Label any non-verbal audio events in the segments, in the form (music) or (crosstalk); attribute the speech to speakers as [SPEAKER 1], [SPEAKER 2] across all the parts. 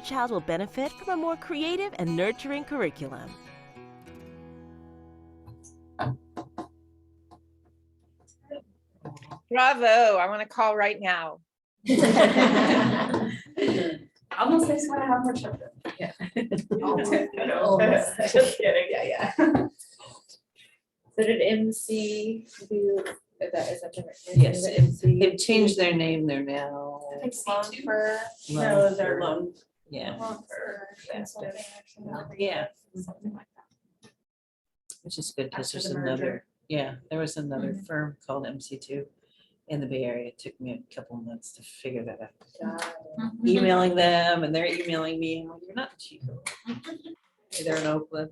[SPEAKER 1] child will benefit from a more creative and nurturing curriculum.
[SPEAKER 2] Bravo. I want to call right now.
[SPEAKER 3] (laughs) Almost makes me want to have more children. Almost. (laughs) Just kidding, yeah, yeah. So did MC do, is that, is that different?
[SPEAKER 4] Yes.
[SPEAKER 3] Is it MC?
[SPEAKER 4] They've changed their name, they're now.
[SPEAKER 3] I think Lonfer.
[SPEAKER 4] Lone Fir.
[SPEAKER 3] lone.
[SPEAKER 4] Yeah,
[SPEAKER 3] Lonfer. Consulting or something.
[SPEAKER 4] yeah,
[SPEAKER 3] Something like that.
[SPEAKER 4] which is good because
[SPEAKER 3] After
[SPEAKER 4] there's
[SPEAKER 3] the merger.
[SPEAKER 4] another, yeah, there was another
[SPEAKER 3] Mhm.
[SPEAKER 4] firm called MC two in the Bay Area. It took me a couple months to figure that out. Emailing them and they're emailing me, I'm like, you're not in Chico. They're in Oakland.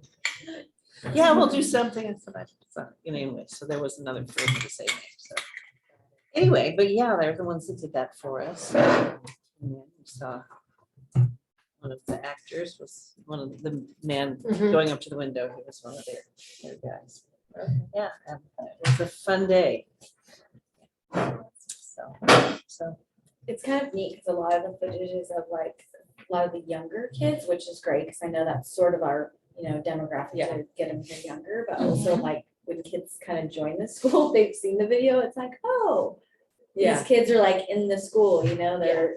[SPEAKER 4] Yeah, we'll do something. I said, "I- so," you know, Anyway, so there was another firm with the same name, so. Anyway, but yeah, they're the ones that did that for us. And then we Saw One of the actors was one of the man going up to the window, he was one of their, their guys. Yeah, and it was a fun day. So, so,
[SPEAKER 3] It's kind of neat because a lot of the footage is of like, a lot of the younger kids, which is great because I know that's sort of our, you know, demographic to get them here younger, but also like when kids kind of join the (laughs) school, they've seen the video, it's like, oh, these
[SPEAKER 5] Yeah.
[SPEAKER 3] kids are like in the school, you know, they're,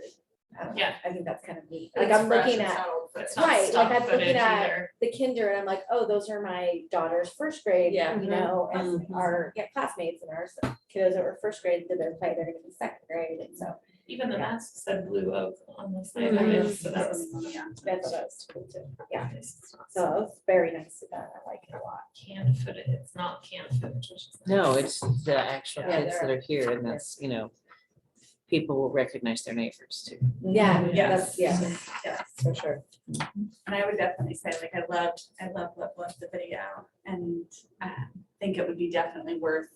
[SPEAKER 3] I don't know,
[SPEAKER 5] Yeah.
[SPEAKER 3] I think that's kind of neat. Like I'm looking at
[SPEAKER 5] It's
[SPEAKER 3] right,
[SPEAKER 5] not
[SPEAKER 3] like
[SPEAKER 5] stock
[SPEAKER 3] I'm looking
[SPEAKER 5] footage
[SPEAKER 3] at-
[SPEAKER 5] either.
[SPEAKER 3] the kinder and I'm like, oh, those are my daughter's first grade,
[SPEAKER 5] Yeah. Mm-hmm.
[SPEAKER 3] you know, and
[SPEAKER 4] Mhm.
[SPEAKER 3] our yeah, classmates and our kiddos that were first grade did their play, they're gonna be second grade, and so
[SPEAKER 5] Even the mask said blue oak on the side of
[SPEAKER 3] Mhm.
[SPEAKER 5] it, so that was.
[SPEAKER 3] that's what I was cool too. Yeah,
[SPEAKER 5] It's not
[SPEAKER 3] so it was very nice of them, I like it a lot.
[SPEAKER 5] Canned footage, it's not canned footage. which is nice.
[SPEAKER 4] no, it's the actual
[SPEAKER 3] Yeah,
[SPEAKER 4] kids that are here and that's, you know, people will recognize their neighbors too.
[SPEAKER 3] Yeah,
[SPEAKER 5] Mhm.
[SPEAKER 3] that's, yeah,
[SPEAKER 6] Yeah,
[SPEAKER 3] for sure.
[SPEAKER 6] and I would definitely say like I loved, I loved, loved, loved the video and I think it would be definitely worth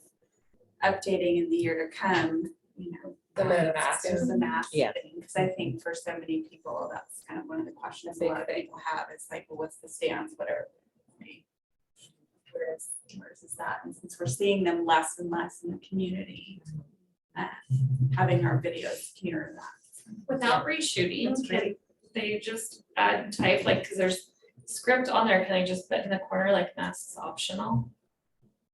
[SPEAKER 6] updating in the year to come, you know.
[SPEAKER 5] The
[SPEAKER 6] um,
[SPEAKER 5] mask.
[SPEAKER 6] just The mask
[SPEAKER 4] Yeah.
[SPEAKER 6] thing, because I think for so many people, that's kind of one of the questions a lot of people have is like, well, what's the stance, what are Where is, where is that? And since we're seeing them less and less in the community, uh, having our videos here and that.
[SPEAKER 5] Without reshooting,
[SPEAKER 6] That's
[SPEAKER 5] can
[SPEAKER 6] great.
[SPEAKER 5] they just add type, like, cause there's script on there, can I just put in the corner like masks optional?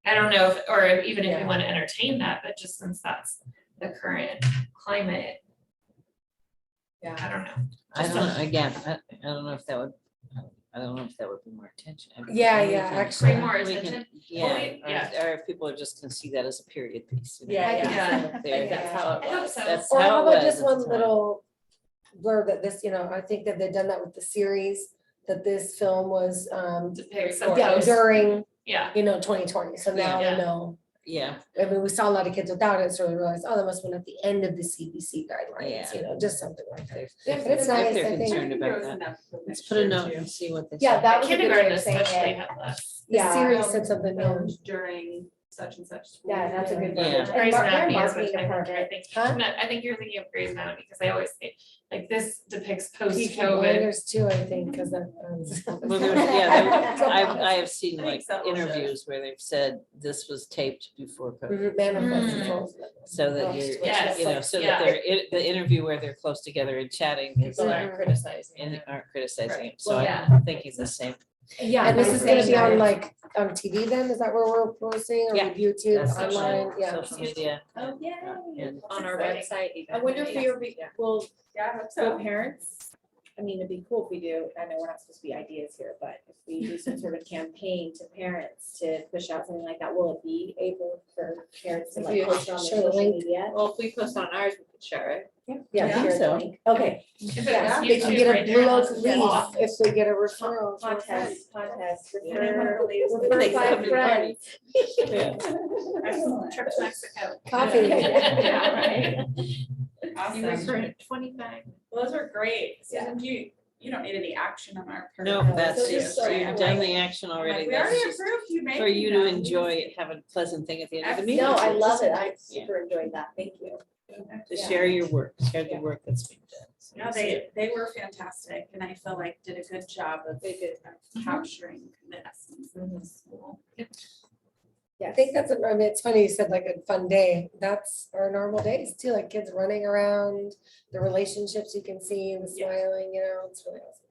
[SPEAKER 5] I don't know, if or if- even if we
[SPEAKER 3] Yeah.
[SPEAKER 5] wanna entertain that, but just since that's the current climate, I don't know.
[SPEAKER 4] I
[SPEAKER 5] Just
[SPEAKER 4] don't know, again, I, I don't know if that would, I don't know if that would be more attention. I mean,
[SPEAKER 3] Yeah,
[SPEAKER 4] we
[SPEAKER 3] yeah,
[SPEAKER 4] can-
[SPEAKER 3] actually.
[SPEAKER 5] Bring more
[SPEAKER 4] we can-
[SPEAKER 5] attention?
[SPEAKER 4] Yeah,
[SPEAKER 5] we- yeah.
[SPEAKER 4] or, or if people are just gonna see that as a period piece. you know,
[SPEAKER 3] Yeah,
[SPEAKER 4] because
[SPEAKER 5] yeah.
[SPEAKER 4] they're-
[SPEAKER 3] that's
[SPEAKER 4] how
[SPEAKER 5] I hope so.
[SPEAKER 4] That's
[SPEAKER 7] Or
[SPEAKER 4] how
[SPEAKER 7] how
[SPEAKER 4] it
[SPEAKER 7] about
[SPEAKER 4] was
[SPEAKER 7] just
[SPEAKER 4] at the
[SPEAKER 7] one
[SPEAKER 4] time.
[SPEAKER 7] little blurb that this, you know, I think that they've done that with the series, that this film was, um,
[SPEAKER 5] Depict some of
[SPEAKER 7] yeah,
[SPEAKER 5] those-
[SPEAKER 7] during,
[SPEAKER 5] yeah,
[SPEAKER 7] you know, twenty twenty, so now we
[SPEAKER 5] Yeah.
[SPEAKER 7] know.
[SPEAKER 4] Yeah,
[SPEAKER 7] I mean, we saw a lot of kids without it, so we realized, oh, that must have been at the end of the CDC guidelines, you know, just something like that. But
[SPEAKER 4] they're- if
[SPEAKER 7] it's nice, I
[SPEAKER 4] they're concerned
[SPEAKER 7] think,
[SPEAKER 4] about that.
[SPEAKER 6] Let's
[SPEAKER 4] Let's put a note and see what they say.
[SPEAKER 7] yeah, that was a good way
[SPEAKER 5] kindergarten
[SPEAKER 7] of saying
[SPEAKER 5] especially
[SPEAKER 7] it.
[SPEAKER 5] have less.
[SPEAKER 7] The
[SPEAKER 3] Yeah.
[SPEAKER 7] series said something, um,
[SPEAKER 6] filmed during such and such. school
[SPEAKER 3] Yeah, that's a
[SPEAKER 6] year.
[SPEAKER 3] good
[SPEAKER 4] Yeah.
[SPEAKER 3] one. And
[SPEAKER 5] Grey's
[SPEAKER 3] Mar-
[SPEAKER 5] Anatomy
[SPEAKER 3] their
[SPEAKER 5] is what
[SPEAKER 3] marketing
[SPEAKER 5] I heard, I
[SPEAKER 3] department,
[SPEAKER 5] think,
[SPEAKER 7] Huh?
[SPEAKER 5] No, I think you're thinking of Grey's Anatomy, because I always say, like, this depicts
[SPEAKER 7] Peaky
[SPEAKER 5] post-COVID.
[SPEAKER 7] Blinders too, I think, because that. um,
[SPEAKER 3] (laughs)
[SPEAKER 4] Well, there's,
[SPEAKER 7] (laughs)
[SPEAKER 4] yeah, there- I, I have seen
[SPEAKER 6] I think
[SPEAKER 4] like
[SPEAKER 6] so, yeah.
[SPEAKER 4] interviews where they've said this was taped before
[SPEAKER 3] Mm-hmm.
[SPEAKER 4] COVID.
[SPEAKER 7] mhm, Manifest
[SPEAKER 5] Mm.
[SPEAKER 7] controls.
[SPEAKER 4] So that you're,
[SPEAKER 5] Yes,
[SPEAKER 4] you know, so that
[SPEAKER 5] yeah.
[SPEAKER 4] they're, it- the interview where they're close together and chatting is
[SPEAKER 7] People
[SPEAKER 4] like,
[SPEAKER 7] aren't
[SPEAKER 4] criticizing. And aren't criticizing it, so
[SPEAKER 5] Well,
[SPEAKER 4] I'm thinking the same.
[SPEAKER 3] Yeah.
[SPEAKER 7] And this
[SPEAKER 3] they're
[SPEAKER 7] is gonna be
[SPEAKER 3] saying
[SPEAKER 7] on
[SPEAKER 3] that.
[SPEAKER 7] like, on TV then, is that where we're posting, or
[SPEAKER 4] Yeah.
[SPEAKER 7] YouTube,
[SPEAKER 4] That's social-
[SPEAKER 7] online, yeah.
[SPEAKER 4] Social media.
[SPEAKER 3] Oh,
[SPEAKER 4] Yeah.
[SPEAKER 3] yay.
[SPEAKER 5] On our website
[SPEAKER 3] I wonder if we
[SPEAKER 6] Yeah.
[SPEAKER 3] are re- will
[SPEAKER 6] Yeah, I hope
[SPEAKER 3] So
[SPEAKER 6] so.
[SPEAKER 3] parents, I mean, it'd be cool if we do, I know we're not supposed to be ideas here, but if we do some sort of campaign to parents to push out something like that, will it be able for parents to like
[SPEAKER 7] Yeah.
[SPEAKER 3] post on their
[SPEAKER 7] Share the
[SPEAKER 3] social
[SPEAKER 7] link.
[SPEAKER 3] media?
[SPEAKER 6] Well, if we post on ours, we could share it.
[SPEAKER 3] Yeah,
[SPEAKER 4] Yeah.
[SPEAKER 3] share the
[SPEAKER 4] So-
[SPEAKER 3] link. Okay,
[SPEAKER 5] If it
[SPEAKER 7] Yeah,
[SPEAKER 5] was
[SPEAKER 7] they can
[SPEAKER 5] YouTube
[SPEAKER 7] get a
[SPEAKER 5] right there,
[SPEAKER 7] blue oak
[SPEAKER 5] that's a
[SPEAKER 7] leaf
[SPEAKER 5] lot.
[SPEAKER 7] if they get a referral. from a friend.
[SPEAKER 3] contest, contest,
[SPEAKER 6] Yeah, I
[SPEAKER 3] refer,
[SPEAKER 6] wanna believe-
[SPEAKER 3] refer
[SPEAKER 4] They come
[SPEAKER 3] by
[SPEAKER 4] to the
[SPEAKER 3] friend.
[SPEAKER 4] Yeah.
[SPEAKER 6] Excellent.
[SPEAKER 5] Trip to Mexico.
[SPEAKER 6] (laughs)
[SPEAKER 7] Coffee.
[SPEAKER 5] Yeah, right. You were
[SPEAKER 6] Awesome.
[SPEAKER 5] for twenty-five.
[SPEAKER 6] Well, Those are great. Susan, do you, you don't need any action on our. part.
[SPEAKER 4] No,
[SPEAKER 3] Yeah.
[SPEAKER 4] that's,
[SPEAKER 3] So just
[SPEAKER 4] you've
[SPEAKER 3] so you
[SPEAKER 4] done the action already,
[SPEAKER 6] We
[SPEAKER 4] that's
[SPEAKER 6] already
[SPEAKER 4] just
[SPEAKER 6] approved you making
[SPEAKER 4] for you to
[SPEAKER 6] them.
[SPEAKER 4] enjoy it, have a pleasant thing at the end of the meeting.
[SPEAKER 3] No, I love it, I super enjoyed that, thank you.
[SPEAKER 4] To
[SPEAKER 3] yeah.
[SPEAKER 4] share your work, share the
[SPEAKER 3] Yeah.
[SPEAKER 4] work that's being done. So
[SPEAKER 6] No,
[SPEAKER 4] it's
[SPEAKER 6] they, they were fantastic and I feel like did a good job of of capturing the essence of the school.
[SPEAKER 3] I think that's, what- I mean, it's funny, you said like a fun day, that's our normal days too, like kids running around, the relationships you can see, the
[SPEAKER 8] Yes.
[SPEAKER 3] smiling, you know, it's really awesome.